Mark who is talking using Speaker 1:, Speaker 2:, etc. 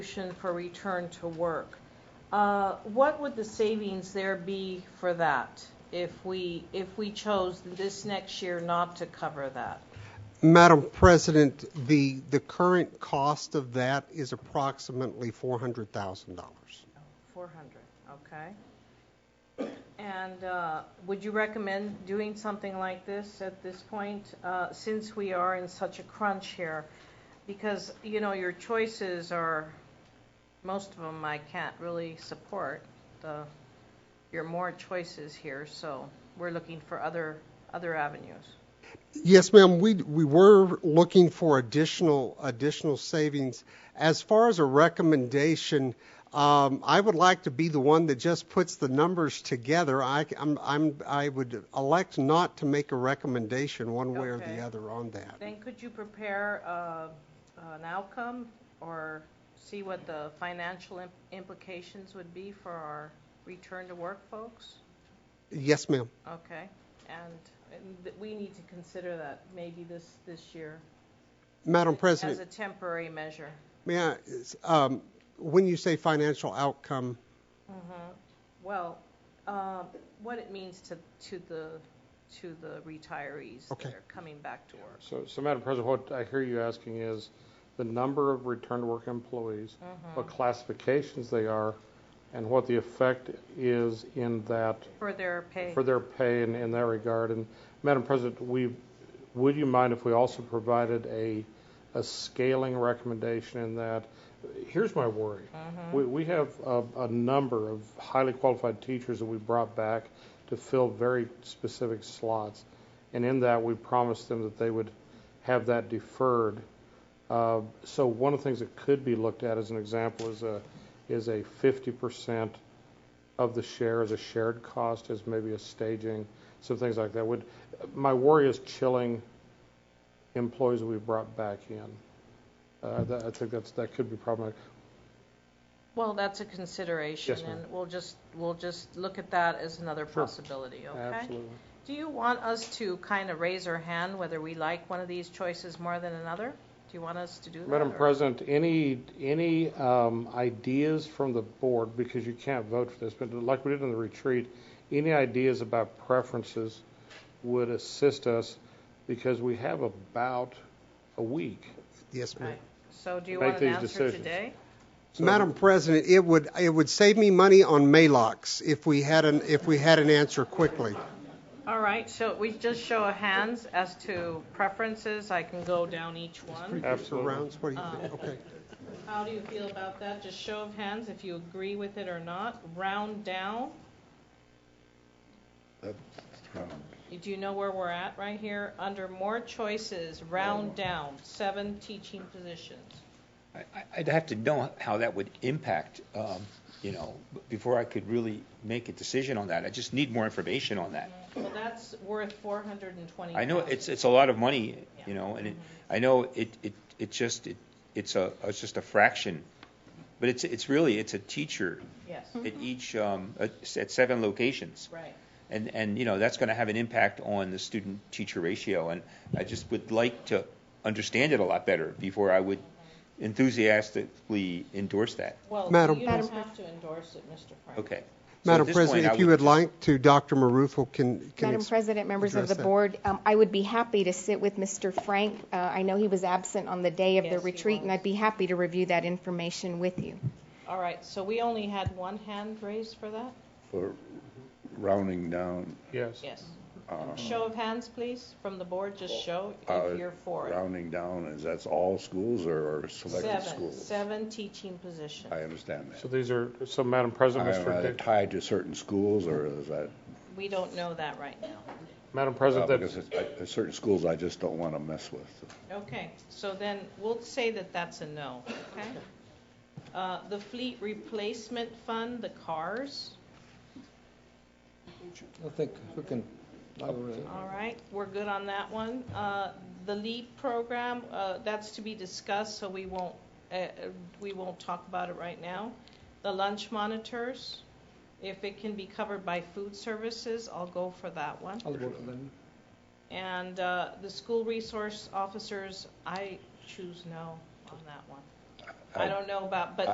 Speaker 1: solution for return to work. Uh, What would the savings there be for that if we, if we chose this next year not to cover that?
Speaker 2: Madam President, the, the current cost of that is approximately $400,000.
Speaker 1: 400, okay? And uh, would you recommend doing something like this at this point, uh, since we are in such a crunch here? Because, you know, your choices are, most of them I can't really support, the, your more choices here, so we're looking for other, other avenues.
Speaker 2: Yes, ma'am, we, we were looking for additional, additional savings. As far as a recommendation, um, I would like to be the one that just puts the numbers together. I, I'm, I'm, I would elect not to make a recommendation one way or
Speaker 1: Okay.
Speaker 2: the other on that.
Speaker 1: Then could you prepare uh, an outcome or see what the financial im- implications would be for our return to work folks?
Speaker 2: Yes, ma'am.
Speaker 1: Okay, and and th- we need to consider that maybe this, this year
Speaker 2: Madam
Speaker 1: as
Speaker 2: President,
Speaker 1: a temporary measure.
Speaker 2: may I, is, um, when you say financial outcome,
Speaker 1: Mm-hmm. Well, uh, what it means to, to the, to the retirees that
Speaker 2: Okay.
Speaker 1: are coming back to work.
Speaker 3: So, so Madam President, what I hear you asking is the number of return to work employees, what classifications they are, and what the effect is in that,
Speaker 1: For their pay.
Speaker 3: for their pay in, in that regard. And Madam President, we, would you mind if we also provided a, a scaling recommendation in that? Here's my worry. We, we have a, a number of highly qualified teachers that we brought back to fill very specific slots. And in that, we promised them that they would have that deferred. Uh, so one of the things that could be looked at as an example is a, is a 50% of the share as a shared cost, as maybe a staging, some things like that. Would my worry is chilling employees that we brought back in. Uh, that, I think that's that could be problematic.
Speaker 1: Well, that's a consideration.
Speaker 3: Yes, ma'am.
Speaker 1: And we'll just, we'll just look at that as another
Speaker 3: Sure.
Speaker 1: possibility, okay?
Speaker 3: Absolutely.
Speaker 1: Do you want us to kind of raise our hand whether we like one of these choices more than another? Do you want us to do that?
Speaker 3: Madam
Speaker 1: or-
Speaker 3: President, any, any um, ideas from the board, because you can't vote for this, but like we did in the retreat, any ideas about preferences would assist us, because we have about a week.
Speaker 2: yes, ma'am.
Speaker 1: Right. So do you
Speaker 3: Make
Speaker 1: want an
Speaker 3: these
Speaker 1: answer
Speaker 3: decisions.
Speaker 1: today?
Speaker 3: So-
Speaker 2: Madam President, it would, it would save me money on Malox if we had an, if we had an answer quickly.
Speaker 1: All right, so we just show of hands as to preferences. I can go down each one.
Speaker 3: Absolutely.
Speaker 2: Rounds, what do you
Speaker 4: Uh,
Speaker 2: think? Okay.
Speaker 1: How do you feel about that? Just show of hands if you agree with it or not. Round down. Do you know where we're at right here? Under more choices, round down, seven teaching positions.
Speaker 4: I- I- I'd have to know how that would impact, um, you know, b- before I could really make a decision on that. I just need more information on that.
Speaker 1: Well, that's worth 420.
Speaker 4: I know it's, it's a lot of money, you know, and it, I know it, it, it just, it, it's a, it's just a fraction. But it's, it's really, it's a teacher
Speaker 1: Yes,
Speaker 4: at each, um, at s- at seven locations.
Speaker 1: right.
Speaker 4: And, and, you know, that's going to have an impact on the student-teacher ratio. And I just would like to understand it a lot better before I would enthusiastically endorse that.
Speaker 1: Well,
Speaker 2: Madam
Speaker 1: you don't
Speaker 2: President.
Speaker 1: have to endorse it, Mr. Frank.
Speaker 4: Okay. So at
Speaker 2: Madam
Speaker 4: this
Speaker 2: President,
Speaker 4: point, I
Speaker 2: if you would like to, Dr. Marufo can, can
Speaker 5: Madam
Speaker 2: ex-
Speaker 5: President, members
Speaker 2: address
Speaker 5: of the
Speaker 2: that.
Speaker 5: board, um, I would be happy to sit with Mr. Frank. Uh, I know he was absent on the day of the
Speaker 1: Yes, he
Speaker 5: retreat, and
Speaker 1: was.
Speaker 5: I'd be happy to review that information with you.
Speaker 1: All right, so we only had one hand raised for that?
Speaker 6: for rounding down,
Speaker 3: Yes.
Speaker 1: Yes.
Speaker 4: Uh-huh.
Speaker 6: uh,
Speaker 1: Show of hands, please, from the board, just show
Speaker 6: uh,
Speaker 1: if you're for it.
Speaker 6: rounding down, is that's all schools or or selected
Speaker 1: Seven,
Speaker 6: schools?
Speaker 1: seven teaching positions.
Speaker 6: I understand
Speaker 3: So
Speaker 6: that.
Speaker 3: these are, so Madam President, Mr.
Speaker 6: Are they
Speaker 3: Dick,
Speaker 6: tied to certain schools or is that?
Speaker 1: We don't know that right now.
Speaker 3: Madam
Speaker 6: uh,
Speaker 3: President,
Speaker 6: Because
Speaker 3: that,
Speaker 6: it's- I- there's certain schools I just don't want to mess with.
Speaker 1: Okay, so then we'll say that that's a no, okay? Uh, The fleet replacement fund, the cars,
Speaker 7: I think we can,
Speaker 1: all right, we're good on that one. Uh, The LEAP program, uh, that's to be discussed, so we won't, uh, uh, we won't talk about it right now. The lunch monitors, if it can be covered by food services, I'll go for that one.
Speaker 7: I'll vote for them.
Speaker 1: And uh, the school resource officers, I choose no on that one. I don't know about, but